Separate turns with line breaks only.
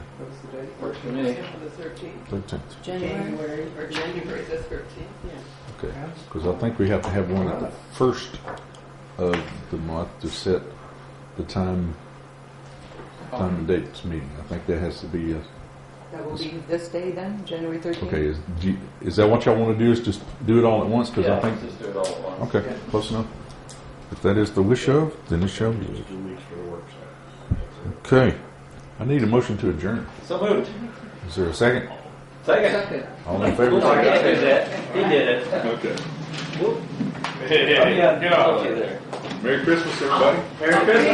what was the date?
Works for me.
Thursday or The thirteenth,
13th,
January.
January, or January the thirteenth, yeah.
okay. Because I think we have to have one at the first of the month to set the time, time and dates meeting. I think that has to be, a-
That will be this day then, January 13th?
okay, is, do you- is that what y'all want to do, is just do it all at once? Because
Yeah,
I think,
just do it all at once.
okay, close enough. If that is the wish of, then it shall be.
Two weeks for a workshop.
Okay. I need a motion to adjourn.
So moved.
Is there a second?
Second.
Second.
All in
Looks like
favor?
I did that. He did it.
Okay.
Whoop.
Hey, hey,
Yeah,
hey,
I'll get
God.
there.
Merry Christmas, everybody.
Merry Christmas.